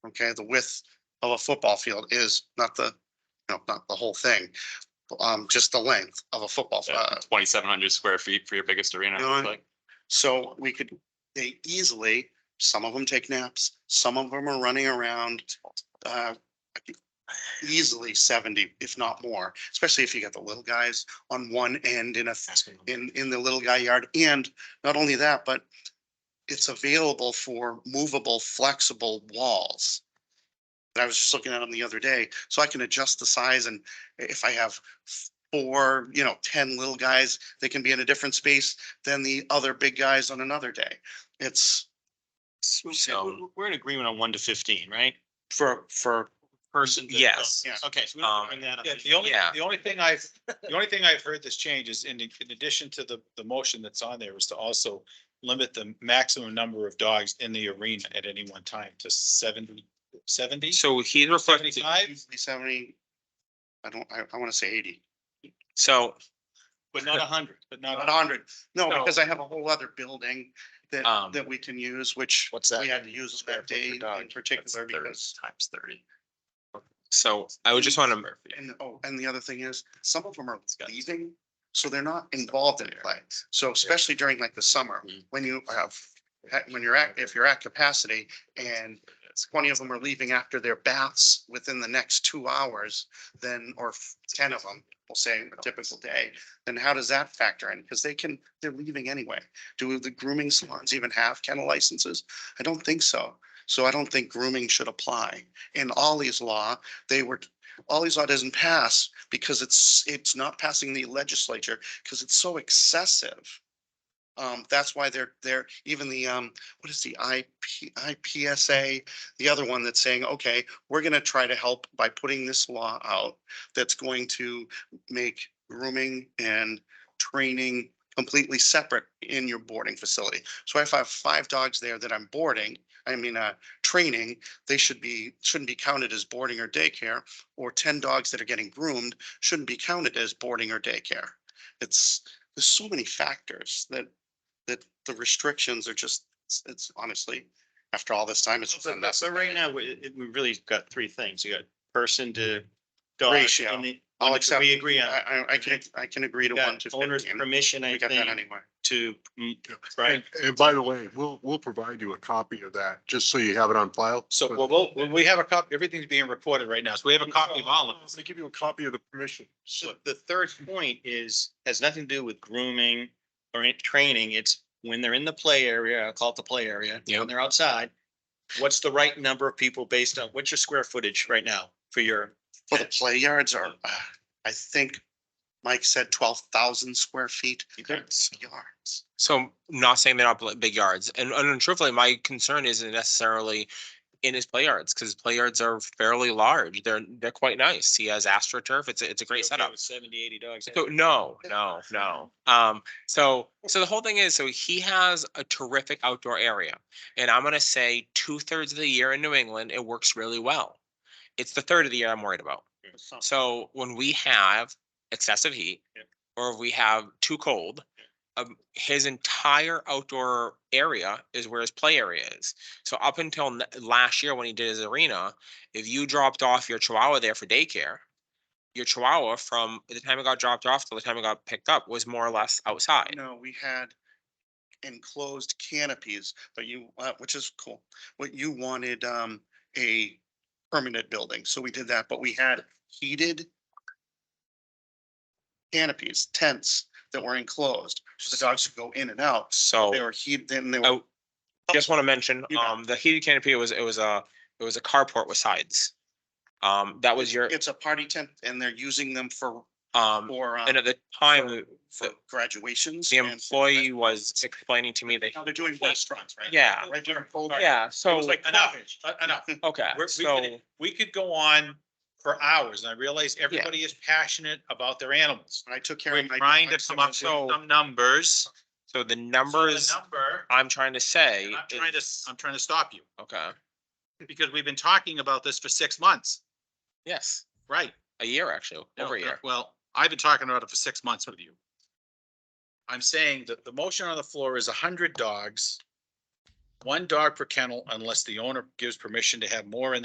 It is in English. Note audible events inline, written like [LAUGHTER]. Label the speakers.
Speaker 1: okay? The width of a football field is not the, you know, not the whole thing. Um, just the length of a football, uh,
Speaker 2: Twenty-seven hundred square feet for your biggest arena.
Speaker 1: You know,
Speaker 2: it's like-
Speaker 1: So we could, they easily, some of them take naps, some of them are running around. uh, Easily seventy, if not more, especially if you got the little guys on one end in a, in, in the little guy yard. And not only that, but it's available for movable, flexible walls. And I was just looking at them the other day, so I can adjust the size and if I have four, you know, ten little guys, they can be in a different space than the other big guys on another day. It's
Speaker 2: So we're in agreement on one to fifteen, right?
Speaker 1: for, for,
Speaker 2: Person. to-
Speaker 3: Yes.
Speaker 1: Yeah.
Speaker 2: Okay, so we don't
Speaker 3: Um,
Speaker 2: bring that up.
Speaker 4: Yeah, the only,
Speaker 3: Yeah.
Speaker 4: the only
Speaker 2: [LAUGHS]
Speaker 4: thing I've, the only thing I've heard this change is in, in addition to the, the motion that's on there is to also limit the maximum number of dogs in the arena at any one time to 70 70?
Speaker 3: So he's referring to,
Speaker 4: Seventy-five?
Speaker 1: usually seventy, I don't, I, I wanna say eighty,
Speaker 3: so,
Speaker 2: But not a hundred.
Speaker 4: but
Speaker 1: not
Speaker 4: not.
Speaker 1: hundred. No,
Speaker 3: No.
Speaker 1: because I have a whole other building that,
Speaker 3: Um,
Speaker 1: that we can use, which
Speaker 4: What's
Speaker 1: we had to use
Speaker 4: Square
Speaker 1: that
Speaker 4: foot per
Speaker 1: day
Speaker 4: dog.
Speaker 1: in particular because.
Speaker 2: Times thirty.
Speaker 3: so I would just want to,
Speaker 1: And, oh, and the other thing is, some of them are
Speaker 2: got-
Speaker 1: leaving, so they're not involved in play. So especially during like the summer,
Speaker 2: Mhm.
Speaker 1: when you have, when you're at, if you're at capacity and twenty of them are leaving after their baths within the next two hours, then, or ten of them, we'll say a typical day, then how does that factor in? Because they can, they're leaving anyway. Do the grooming salons even have kennel licenses? I don't think so. So I don't think grooming should apply. In Ollie's law, they were, Ollie's law doesn't pass because it's, it's not passing the legislature because it's so excessive. Um, that's why they're, they're, even the, um, what is the IP, IPSA, the other one that's saying, okay, we're gonna try to help by putting this law out that's going to make grooming and training completely separate in your boarding facility. So if I have five dogs there that I'm boarding, I mean, uh, training, they should be, shouldn't be counted as boarding or daycare, or ten dogs that are getting groomed shouldn't be counted as boarding or daycare. It's, there's so many factors that, that the restrictions are just, it's- it's honestly, after all this time, it's. just
Speaker 2: But but
Speaker 1: unnecessary.
Speaker 2: right now, we, it- we really got three things. You got person to dog.
Speaker 1: Ratio.
Speaker 2: and the-
Speaker 1: I'll
Speaker 2: one
Speaker 1: accept-
Speaker 2: We agree on.
Speaker 1: I, I, I can, I can agree to
Speaker 2: We
Speaker 1: one
Speaker 2: got
Speaker 1: to
Speaker 2: Owner's
Speaker 1: fifteen.
Speaker 2: permission, I
Speaker 1: We got that
Speaker 2: think,
Speaker 1: anyway.
Speaker 2: to, mm,
Speaker 5: And,
Speaker 2: right?
Speaker 5: and by the way, we'll, we'll provide you a copy of that, just so you have it on file.
Speaker 4: So, well, we'll- well, we have a copy, everything's being recorded right now, so we have a copy of all of
Speaker 5: I'm
Speaker 4: this.
Speaker 5: gonna give you a copy of the permission.
Speaker 2: So the third point is, has nothing to do with grooming or in training. It's when they're in the play area, I call it the play area, when
Speaker 3: Yep.
Speaker 2: they're outside. What's the right number of people based on, what's your square footage right now for your,
Speaker 1: Well, the play yards are, uh, I think Mike said twelve thousand square feet. That's yards.
Speaker 3: so not saying they're not bl- big yards. And, and truthfully, my concern isn't necessarily in his play yards, because play yards are fairly large. They're, they're quite nice. He has astroturf. It's, a- it's a great
Speaker 2: Okay,
Speaker 3: setup.
Speaker 2: with Seventy, eighty dogs.
Speaker 3: So no, no, no. Um, so, so the whole thing is, so he has a terrific outdoor area. And I'm gonna say two thirds of the year in New England, it works really well. It's the third of the year I'm worried about. So when we have excessive heat
Speaker 2: Yep.
Speaker 3: or if we have too cold, um, his entire outdoor area is where his play area is. So up until n- last year when he did his arena, if you dropped off your chihuahua there for daycare, your chihuahua from the time it got dropped off till the time it got picked up was more or less outside.
Speaker 1: No, we had enclosed canopies, but you, uh, which is cool. What you wanted, um, a permanent building, so we did that, but we had heated canopies, tents that were enclosed, so the dogs could go in and out.
Speaker 3: So.
Speaker 1: They were heated, then they
Speaker 3: I
Speaker 1: were,
Speaker 3: just want to mention,
Speaker 1: You got
Speaker 3: um, the heated canopy was, it was a, it was a carport with sides. Um, that was your,
Speaker 1: it's a party tent and they're using them for,
Speaker 3: um,
Speaker 1: for. um,
Speaker 3: and at the time, uh,
Speaker 1: for
Speaker 3: the-
Speaker 1: graduations.
Speaker 3: the
Speaker 1: and-
Speaker 3: employee was explaining to me that,
Speaker 1: Now they're doing restaurants, right?
Speaker 3: yeah,
Speaker 1: Right during COVID.
Speaker 3: yeah,
Speaker 4: It was
Speaker 3: so,
Speaker 4: like, enough,
Speaker 2: [LAUGHS]
Speaker 4: enough.
Speaker 3: okay,
Speaker 4: We're- we
Speaker 3: so,
Speaker 4: could- We could go on for hours, and I realize everybody is passionate about their animals.
Speaker 1: And I took care
Speaker 4: We're
Speaker 1: of my.
Speaker 4: trying to
Speaker 1: dogs,
Speaker 4: come up with
Speaker 3: So-
Speaker 4: some numbers.
Speaker 3: so the
Speaker 4: So the
Speaker 3: numbers
Speaker 4: Number.
Speaker 3: I'm trying to say,
Speaker 4: And I'm trying to,
Speaker 3: is-
Speaker 4: I'm trying to stop you
Speaker 3: okay,
Speaker 4: because we've been talking about this for six months,
Speaker 3: yes,
Speaker 4: right?
Speaker 3: a year actually,
Speaker 4: No,
Speaker 3: over a
Speaker 4: no,
Speaker 3: year.
Speaker 4: Well, I've been talking about it for six months with you. I'm saying that the motion on the floor is hundred dogs. One dog per kennel unless the owner gives permission to have more in